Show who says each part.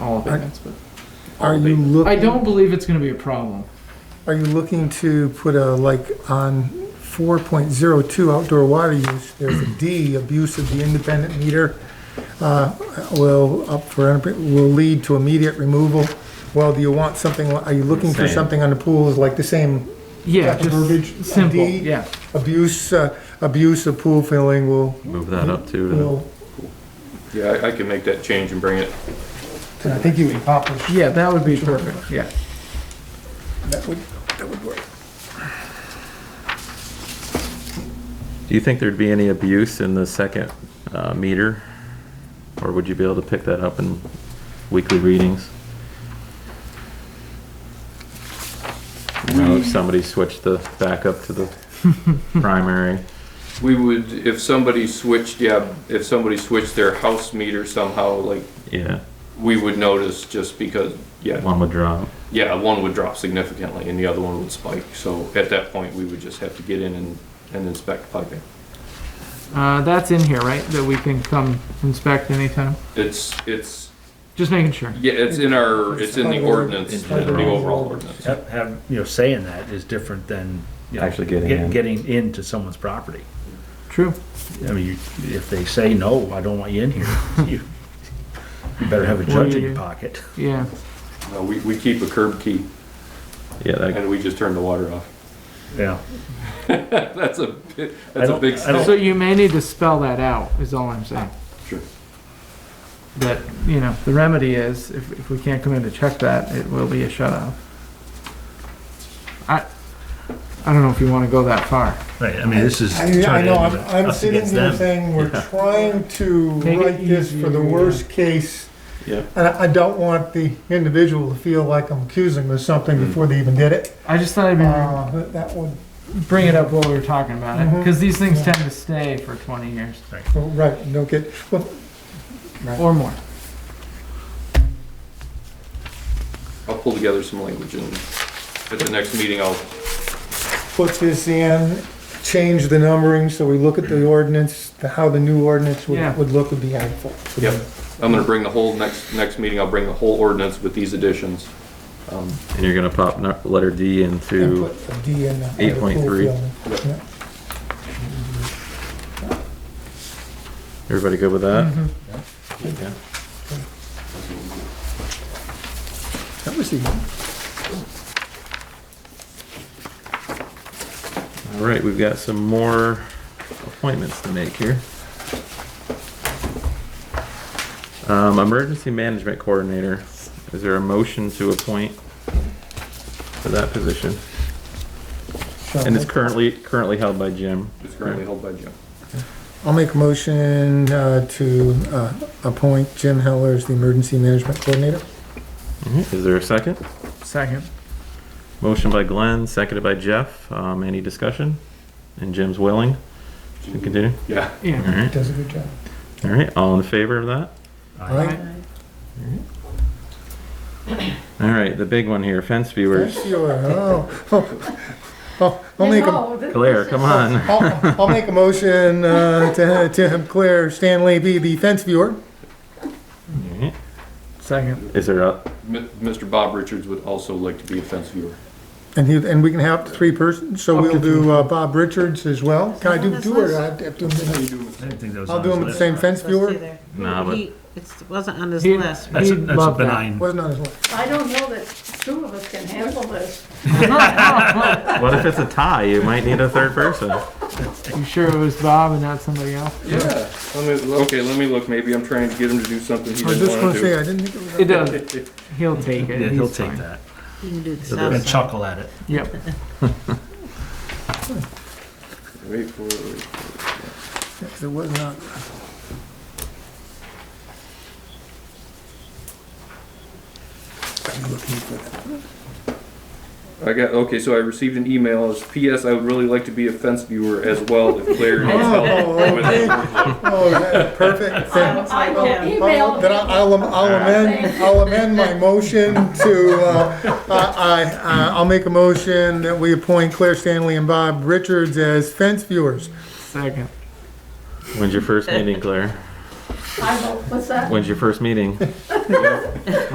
Speaker 1: small payments, but.
Speaker 2: Are you
Speaker 1: I
Speaker 2: looking,
Speaker 1: don't believe it's gonna be a problem.
Speaker 2: are you looking to put a, like, on four point zero two outdoor water use, there's a D, abuse of the independent meter, uh, will up for, will lead to immediate removal? Well, do you want something, li- are you looking for
Speaker 3: Same.
Speaker 2: something on the pools, like the same
Speaker 1: Yeah,
Speaker 2: That verbiage,
Speaker 1: just simple,
Speaker 2: D?
Speaker 1: yeah.
Speaker 2: abuse, uh, abuse of pool filling will,
Speaker 3: Move that up too, to uh,
Speaker 2: will,
Speaker 4: Yeah, I, I can make that change and bring it.
Speaker 2: and I think you accomplished.
Speaker 1: Yeah, that would be perfect, yeah.
Speaker 2: That would, that would work.
Speaker 3: do you think there'd be any abuse in the second uh, meter? Or would you be able to pick that up in weekly readings? You know, if somebody switched the backup to the primary,
Speaker 4: We would, if somebody switched, yeah, if somebody switched their house meter somehow, like,
Speaker 3: yeah,
Speaker 4: we would notice just because, yeah,
Speaker 3: one would drop.
Speaker 4: yeah, one would drop significantly and the other one would spike. So at that point, we would just have to get in and, and inspect piping.
Speaker 1: Uh, that's in here, right? That we can come inspect anytime?
Speaker 4: It's, it's,
Speaker 1: Just making sure.
Speaker 4: yeah, it's in our, it's in the ordinance, the overall ordinance.
Speaker 5: Have, have, you know, saying that is different than, you know.
Speaker 3: Actually getting
Speaker 5: get-
Speaker 3: in.
Speaker 5: Getting into someone's property.
Speaker 1: True.
Speaker 5: I mean, you- if they say, no, I don't want you in here, you, you better have a judge in your pocket.
Speaker 1: Yeah.
Speaker 4: No, we, we keep a curb key
Speaker 3: Yeah, that,
Speaker 4: and we just turn the water off.
Speaker 5: Yeah.
Speaker 4: That's a, bi-
Speaker 5: I
Speaker 4: that's a
Speaker 5: don't-
Speaker 4: big
Speaker 5: I don't-
Speaker 4: step.
Speaker 1: So you may need to spell that out, is all I'm saying.
Speaker 4: Sure.
Speaker 1: That, you know, the remedy is, if, if we can't come in to check that, it will be a shut off. I, I don't know if you wanna go that far.
Speaker 5: Right, I mean, this is.
Speaker 2: I, I
Speaker 5: turning
Speaker 2: know, I'm,
Speaker 5: us
Speaker 2: I'm sitting
Speaker 5: against
Speaker 2: here
Speaker 5: them.
Speaker 2: saying, we're
Speaker 3: Yeah.
Speaker 2: trying to
Speaker 1: Take it
Speaker 2: write this for the
Speaker 1: easy,
Speaker 2: worst case.
Speaker 3: Yeah.
Speaker 2: And I, I don't want the individual to feel like I'm accusing them of something
Speaker 3: Mm.
Speaker 2: before they even did it.
Speaker 1: I just thought I'd be-
Speaker 2: Uh, but that would,
Speaker 1: bring it up while we were talking about it,
Speaker 2: Mhm.
Speaker 1: cause these things
Speaker 2: Yeah.
Speaker 1: tend to stay for twenty years
Speaker 2: oh, right, don't get, well,
Speaker 1: or more.
Speaker 4: I'll pull together some language and at the next meeting, I'll
Speaker 2: put this in, change the numbering, so we look at the ordinance, the- how the new ordinance
Speaker 1: Yeah.
Speaker 2: would, would look would be helpful.
Speaker 4: Yep, I'm gonna bring the whole, next, next meeting, I'll bring the whole ordinance with these additions. Um,
Speaker 3: and you're gonna pop nu- letter D
Speaker 2: And
Speaker 3: into,
Speaker 2: put a D in. the- on the pool
Speaker 3: 8.3.
Speaker 2: field. Yeah.
Speaker 3: everybody good with that?
Speaker 2: That was the,
Speaker 3: All right, we've got some more appointments to make here. Um, emergency management coordinator, is there a motion to appoint for that position? And it's currently, currently held by Jim.
Speaker 4: It's currently held by Jim.
Speaker 2: I'll make a motion uh, to uh, appoint Jim Heller as the emergency management coordinator.
Speaker 3: Mhm. Is there a second?
Speaker 1: Second.
Speaker 3: Motion by Glenn, seconded by Jeff. Um, any discussion? And Jim's willing to continue?
Speaker 4: Yeah,
Speaker 3: All
Speaker 1: Yeah.
Speaker 3: right,
Speaker 2: Does a good job.
Speaker 3: all right, all in favor of that?
Speaker 2: All right.
Speaker 3: All right, the big one here, fence viewers.
Speaker 2: Thank you. Oh, oh, oh, I'll make a,
Speaker 3: Claire, come on.
Speaker 2: I'll, I'll make a motion uh, to, to have Claire Stanley be the fence viewer.
Speaker 3: All right.
Speaker 1: Second.
Speaker 3: Is there a,
Speaker 4: M- Mr. Bob Richards would also like to be a fence viewer.
Speaker 2: And he, and we can have up to three persons, so
Speaker 1: Up to
Speaker 2: we'll do uh, Bob Richards as well. Can I do, do it? I have to do them-
Speaker 5: I didn't think that was
Speaker 2: I'll
Speaker 5: on
Speaker 2: do
Speaker 5: his
Speaker 2: them the
Speaker 5: list.
Speaker 2: same fence viewer.
Speaker 3: Nah, but-
Speaker 6: It wasn't on his
Speaker 1: He-
Speaker 6: list.
Speaker 5: That's, a-
Speaker 1: He'd
Speaker 5: that's a
Speaker 1: love that.
Speaker 5: benign.
Speaker 2: Wasn't on his list.
Speaker 7: I don't know that two of us can handle this.
Speaker 3: What if it's a tie? You might need a third person.
Speaker 1: You sure it was Bob and not somebody else?
Speaker 4: Yeah. Let me, okay, let me look, maybe I'm trying to get him to do something he
Speaker 2: I was just gonna
Speaker 4: doesn't wanna
Speaker 2: say,
Speaker 4: do.
Speaker 2: I didn't think it was.
Speaker 1: It does. He'll take it.
Speaker 5: Yeah, he'll
Speaker 1: He's
Speaker 5: take
Speaker 1: fine.
Speaker 5: that
Speaker 6: You can do the
Speaker 5: and
Speaker 6: south side.
Speaker 5: chuckle at it.
Speaker 1: Yep.
Speaker 4: Wait for it.
Speaker 2: It was not. I'm looking for that.
Speaker 4: I got, okay, so I received an email, it's PS, I would really like to be a fence viewer as well if Claire needs help.
Speaker 2: Oh, okay. Oh, yeah, perfect. Then-
Speaker 7: I will email
Speaker 2: Then I- I'll, am- I'll amend, I'll amend my motion to, uh, I, I, I'll make a motion that we appoint Claire Stanley and Bob Richards as fence viewers.
Speaker 1: Second.
Speaker 3: When's your first meeting, Claire?
Speaker 7: I will, what's that?
Speaker 3: When's your first meeting?